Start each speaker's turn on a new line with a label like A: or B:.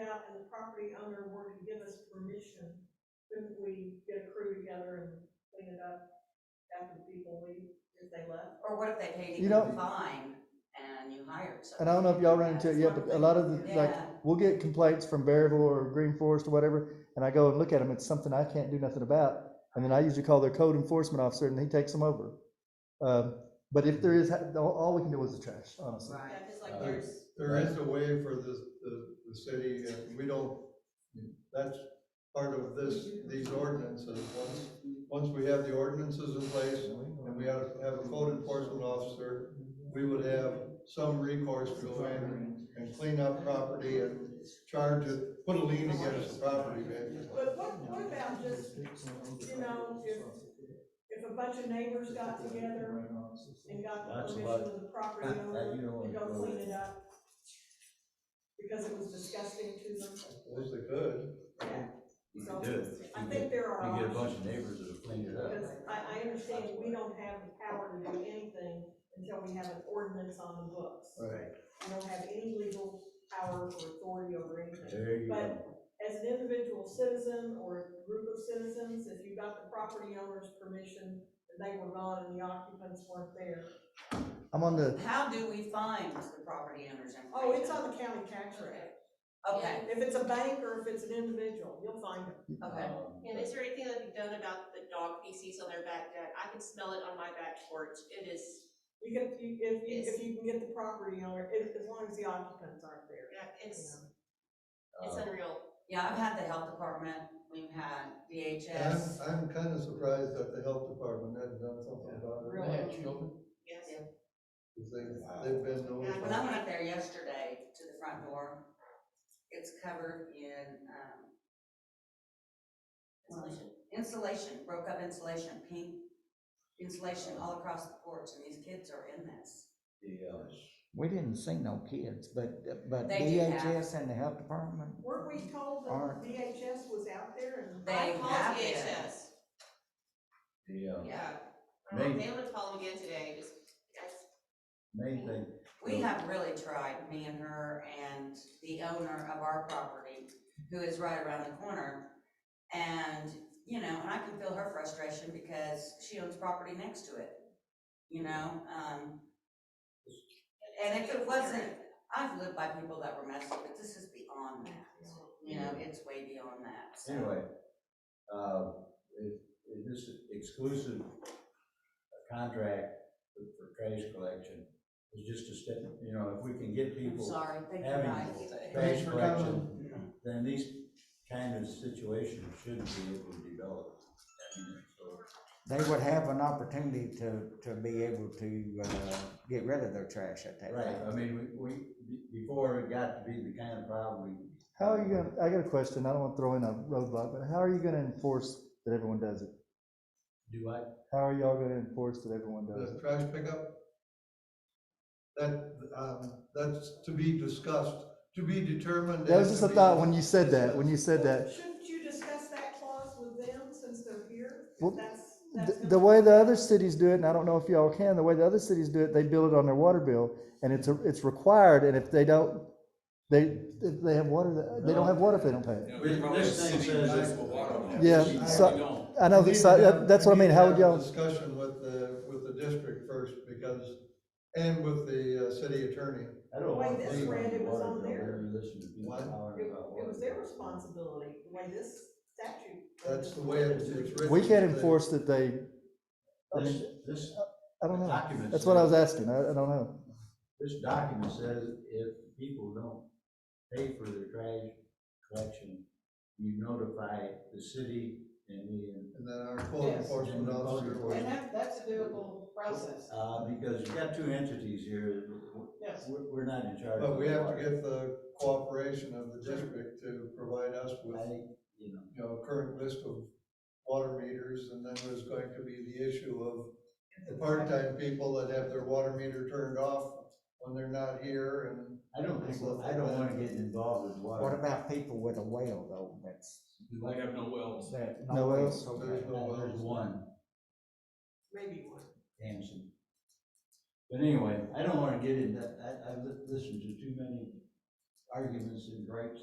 A: out and the property owner were to give us permission, couldn't we get a crew together and clean it up after people leave, if they left?
B: Or what if they paid
C: You
B: you
C: know-
B: a fine and you hired someone?
C: And I don't know if y'all run into it yet, but a lot of the,
B: Yeah.
C: like, we'll get complaints from Bearville or Green Forest or whatever, and I go and look at them, it's something I can't do nothing about. And then I usually call their code enforcement officer and he takes them over. Um, but if there is, all, all we can do is the trash, honestly.
B: Right.
A: Yeah, just
D: Uh,
A: like there's,
D: There is a way for the, the, the city, uh, we don't, that's part of this, these ordinances. Once, once we have the ordinances in place and we have, have a code enforcement officer, we would have some recourse to go in and clean up property and charge it, put a lien against the property, basically.
A: but what, what about just you know, if- if a bunch of neighbors got together and got the
E: That's
A: permission
E: what-
A: of the property
E: that- that
A: owner
E: you don't
A: to go
E: wanna go
A: clean
E: with.
A: it up? Because it was disgusting to them,
D: Suppose they could.
A: yeah.
E: You
A: So,
E: can do it.
A: I
E: You
A: think
E: get-
A: there are
E: You get a
A: options,
E: bunch of neighbors that'll clean it up.
A: because I, I understand we don't have the power to do anything until we have an ordinance on the books.
D: Right.
A: We don't have any legal power or authority over anything.
E: There you go.
A: But as an individual citizen or a group of citizens, if you got the property owner's permission and they were gone and the occupants weren't there,
C: I'm on the,
B: How do we find the property owner's information?
A: oh, it's on the county tax rate.
B: Okay,
A: If it's a bank or if it's an individual, you'll find it.
B: okay.
E: Um,
F: And is there anything that can be done about the dog feces on their back deck? I can smell it on my back porch. It is,
A: You can, if you, if you, if you can get the property owner, if, as long as the occupants aren't there.
F: yeah,
A: you
F: it's,
A: know.
F: it's
E: uh,
F: unreal.
B: Yeah, I've had the health department, we've had
D: I'm,
B: DHS.
D: I'm kind of surprised that the health department hadn't done something about it.
A: Really.
F: Yes.
B: Yeah.
D: Because They, they've been notified.
B: When I went up there yesterday to the front door, it's covered in, um,
F: Insulation.
B: insulation, broke up insulation, pink insulation all across the porch, and these kids are in this.
E: The, uh,
G: We didn't see no kids, but, but
B: They do have.
G: DHS and the health department,
A: Weren't we told
G: Aren't-
A: that DHS was out there and?
B: They
F: I
B: have
F: called
B: it.
F: DHS.
E: the, uh,
F: Yeah. Um,
E: Maybe.
F: They would call them again today, just, that's,
E: main thing,
B: We have really tried, me and her and the owner of our property, who is right around the corner. And, you know, and I can feel her frustration because she owns property next to it, you know, um. And if it wasn't, I've lived by people that were messy, but this is beyond that, you know, it's way beyond that, so.
E: anyway, uh, it, it is exclusive uh, contract for for trash collection. It's just a step, you know, if we can get
B: I'm
E: people
B: sorry, thank you
E: having
B: guys.
E: trash
D: Thanks for coming.
E: collection, then these kind of situations should be able to develop. I mean, so,
G: they would have an opportunity to, to be able to, uh, get rid of their trash at that
E: Right, I
G: time.
E: mean, we, we, be- before it got to be the kind of problem we
C: how are you gonna, I got a question, I don't wanna throw in a roadblock, but how are you gonna enforce that everyone does it?
E: do, I,
C: How are y'all gonna enforce that everyone does
D: The
C: it?
D: trash pickup? That, um, that's to be discussed, to be determined.
C: That was
D: and
C: just
D: to
C: a
D: be-
C: thought when you said that, when you said that.
A: Shouldn't you discuss that clause with them since they're here?
C: Well,
A: That's, that's.
C: The,
A: gonna-
C: the way the other cities do it, and I don't know if y'all can, the way the other cities do it, they bill it on their water bill, and it's, a- it's required, and if they don't, they, if they have water, they don't have water if they don't pay it.
H: You know, there's probably a
E: This thing
H: city
E: says
H: municipal
E: that-
H: water on that.
C: Yeah,
H: We
C: so-
H: don't.
C: I know,
D: We need
C: that's,
D: to have-
C: that's what I
D: we need
C: mean,
D: to
C: how would
D: have a
C: y'all,
D: Discussion with the, with the district first, because, and with the uh, city attorney.
E: I don't
A: Wait,
E: want.
A: this
E: people
A: red, it was
E: water
A: on
E: bill,
A: there.
E: we Listen to people
D: What?
E: hollering
A: It
E: about
A: it was
E: water
A: their
E: bill.
A: responsibility, the way this statute.
D: That's the way it's it's written.
C: we can't
D: They-
C: enforce that they, I
E: This,
C: mean,
E: this
C: I don't know.
E: document.
C: That's what I was
E: says-
C: asking, I, I don't know.
E: This document says if people don't pay for their trash collection, you notify the city and the,
D: And then our code
I: Yes.
D: enforcement officer
I: And
D: would,
I: that, that's a doable process,
E: uh, because you got two entities here,
I: yes.
E: we're, we're not in charge.
D: but
E: of
D: we
E: the
D: have to
E: water.
D: get the cooperation of the district to provide us with
E: I, you know,
D: you know, current list of water meters, and then there's going to be the issue of the part-time people that have their water meter turned off when they're not here, and
E: I don't think, I don't wanna get involved with water.
G: What about people with a well though, that's,
H: They have no wells.
G: that.
C: No wells?
G: okay.
D: there's no
E: Well,
D: wells.
E: There's one.
A: Maybe one.
E: Hanson. But anyway, I don't wanna get into that, I, I've listened to too many arguments and gripes